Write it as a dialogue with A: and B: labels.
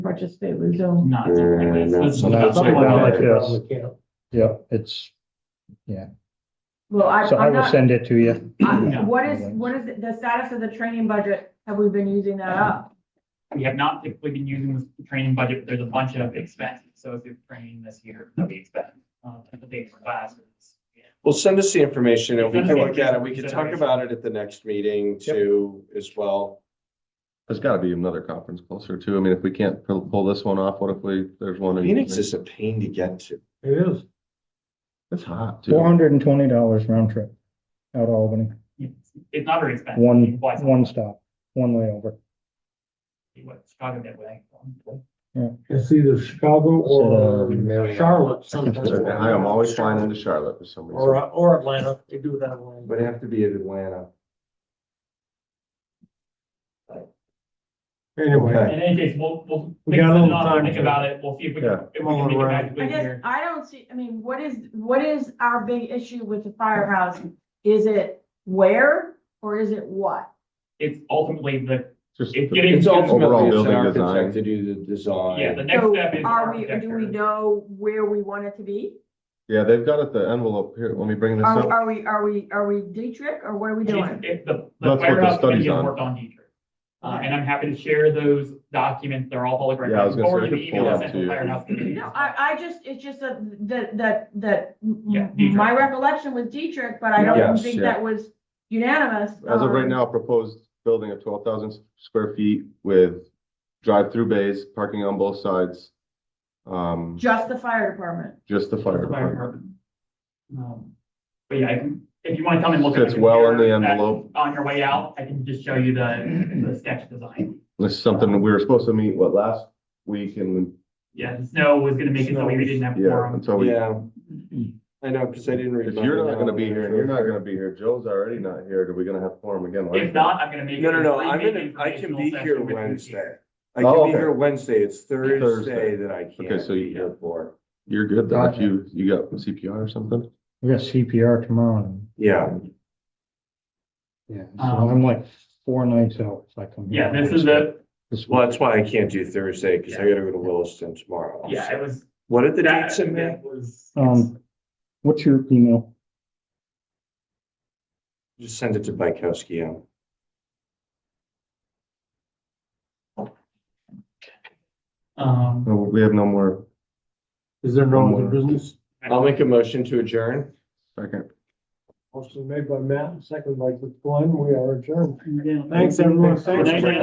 A: participate with Zoom.
B: Not technically,
C: Uh, no.
B: it's- it's
D: No,
B: not
D: something
B: like
D: like
B: that.
D: that. yes.
E: Probably can't.
D: Yeah, it's,
A: Well, I,
D: so I
A: I'm
D: will
A: not,
D: send it to you.
A: I- what is, what is the status of the training budget? Have we been using that up?
B: We have not typically been using the training budget, but there's a bunch of expenses, so if you're training this year, that we expect, uh, the day for classes. yeah.
C: Well, send us the information and we
B: Send
C: can
B: us the
C: look at it. We can talk
B: information.
C: about it at the next meeting too as well.
F: There's gotta be another conference closer too. I mean, if we can't pull, pull this one off, what if we, there's one in?
C: Phoenix is a pain to get to.
E: It is.
F: It's hot
D: Four
F: too.
D: hundred and twenty dollars round trip out of Albany,
B: It's it's not very expensive.
D: one,
B: Why it's
D: one stop, one layover.
B: What Chicago did, way.
E: It's either Chicago or um,
C: Marietta.
E: Charlotte sometimes.
F: I am always flying into Charlotte for some
E: Or,
F: reason.
E: uh, or Atlanta, they do that one.
C: Would have to be in Atlanta.
E: Anyway,
C: Okay.
B: In any case, we'll, we'll.
E: We got a little
B: think about it,
E: time
B: Think
E: to-
B: about it, we'll see if we can,
F: Yeah.
B: if we can make it back
A: I
B: to
A: guess,
B: here.
A: I don't see, I mean, what is, what is our big issue with the firehouse? Is it where or is it what?
B: It's ultimately the,
F: Just
B: It-
F: the-
B: it is-
C: It's
F: Overall
C: ultimately, it's an
F: building
C: architect
F: design.
C: to do the design.
B: yeah, the next
A: So
B: step is.
A: Are we, do we
B: architecture.
A: know where we want it to be?
F: Yeah, they've got it, the envelope here. Let me bring this
A: Are,
F: up.
A: are we, are we, are we Dietrich or what are we
B: It's-
A: doing?
B: It, the, the
F: what the
B: firehouse committee
F: study's
B: has
F: on.
B: worked on Dietrich. Uh,
A: Okay.
B: and I'm happy to share those documents, they're all public record.
F: Yeah, I was gonna
B: Forward
F: say, I
B: the
F: could
B: email
F: pull
B: I
F: up
B: sent
F: to
B: the
F: you.
B: firehouse committee.
A: No, I, I just, it's just that, that, that, that, m-
B: Yeah, Dietrich.
A: my recollection was Dietrich, but I don't
F: Yes,
A: think
F: yeah.
A: that was unanimous.
F: As of right
A: um,
F: now, proposed building of twelve thousand square feet with drive-through bays, parking on both sides. Um,
A: Just the fire department.
F: just the fire
B: Fire
F: department.
B: department. Um, But yeah, I can- if you want to come and look. at
F: Fits well in the
B: computer, that-
F: envelope.
B: On your way out, I can just show you the, the sketch design.
F: This is something that we were supposed to meet, what, last week and,
B: Yeah, the snow was gonna make it so we
E: Snow.
B: didn't have
F: yeah,
B: forum.
F: until we.
C: Yeah. I know, because I didn't read.
F: If
C: my
F: you're not gonna
C: email.
F: be here and you're not gonna be here, Joe's already not here, are we gonna have forum again? Why-
B: If not, I'm gonna make.
C: No, no,
B: it
C: no,
B: free
C: I'm gonna,
B: meeting
C: I can be
B: informational
C: here
B: session with you.
C: Wednesday. I can
F: Oh,
C: be
F: okay.
C: here Wednesday. It's Thursday
F: Thursday.
C: that I can't.
F: Okay, so
C: be
F: you-
C: here for.
F: You're good, Doc.
D: Gotcha.
F: You, you got CPR or something?
D: We got CPR tomorrow. and-
C: Yeah,
D: Yeah. So
B: Um,
D: I'm like four nights out if I come.
B: Yeah,
D: here.
B: this is the,
D: This
C: well,
D: one,
C: that's why I can't do Thursday, because I
B: Yeah.
C: gotta go to Williston tomorrow.
B: yeah, it was.
C: What are the
B: that-
C: dates in there?
B: that was-
D: Um, what's your email?
C: Just send it to Bykowski. um,
B: Um.
F: No, we have no more
E: is there no other business?
C: I'll make a motion to adjourn.
F: second.
E: Motion made by Matt, second by Glenn, we are adjourned.
B: Yeah.
E: Thanks, everyone.
B: Good night,
E: Thanks.
B: Matt.